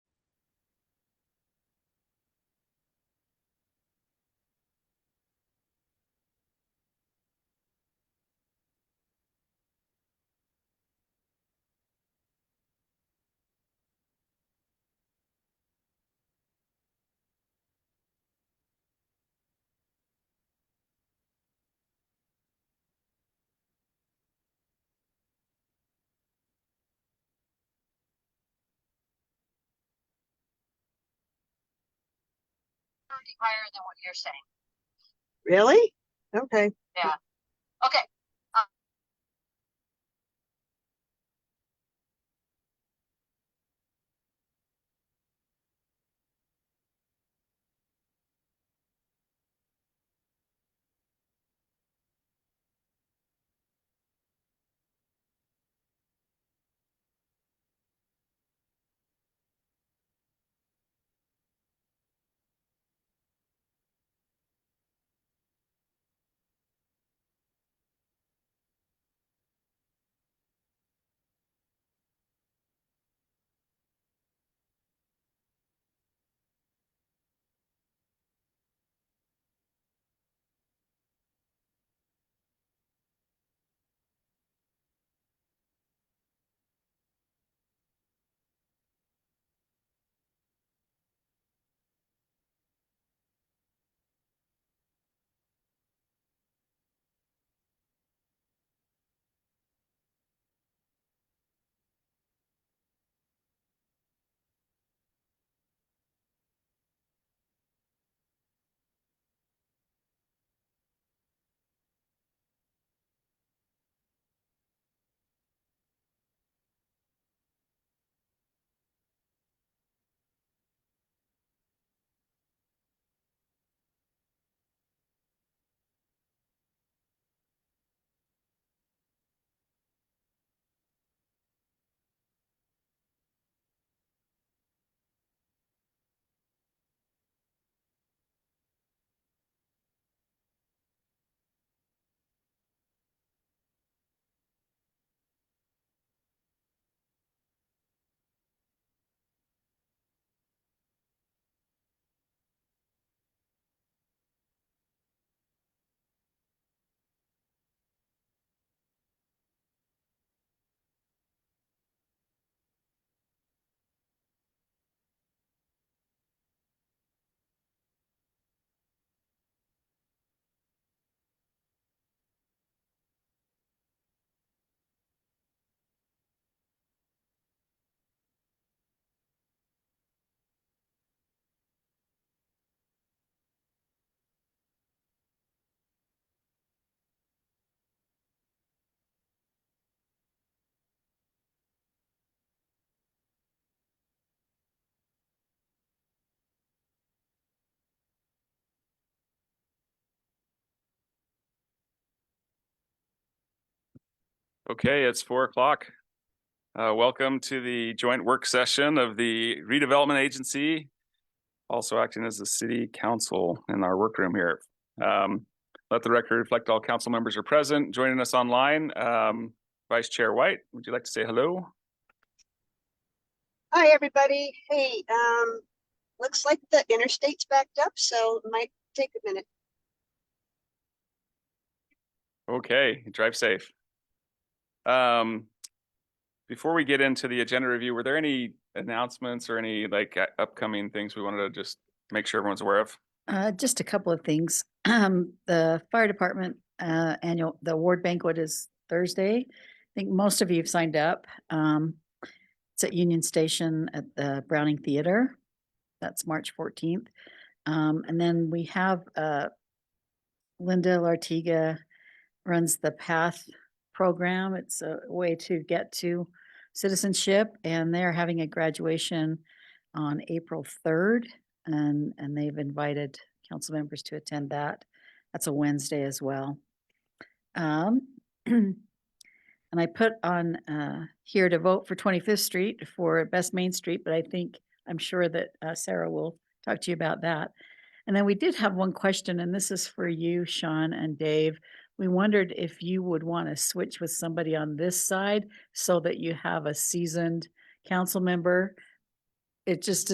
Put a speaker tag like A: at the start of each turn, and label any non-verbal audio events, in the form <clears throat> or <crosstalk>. A: something higher than what you're saying.
B: Really? Okay.
A: Okay,
C: Okay, it's four o'clock. Uh, welcome to the joint work session of the redevelopment agency. Also acting as the city council in our workroom here. Um, let the record reflect all council members are present. Joining us online, um, Vice Chair White, would you like to say hello?
B: Hi, everybody. Hey, um, looks like the interstate's backed up, so it might take a minute.
C: Okay, drive safe. Um, before we get into the agenda review, were there any announcements or any like uh, upcoming things we wanted to just make sure everyone's aware of?
D: Uh, just a couple of things. <clears throat> Um, the fire department, uh, annual, the award banquet is Thursday. I think most of you have signed up. Um, it's at Union Station at the Browning Theater. That's March fourteenth. Um, and then we have, uh, Linda Lartiga runs the PATH program. It's a way to get to citizenship and they're having a graduation on April third. And, and they've invited council members to attend that. That's a Wednesday as well. Um, <clears throat> and I put on, uh, here to vote for Twenty-Fifth Street for Best Main Street, but I think, I'm sure that, uh, Sarah will talk to you about that. And then we did have one question, and this is for you, Sean and Dave. We wondered if you would want to switch with somebody on this side so that you have a seasoned council member. It just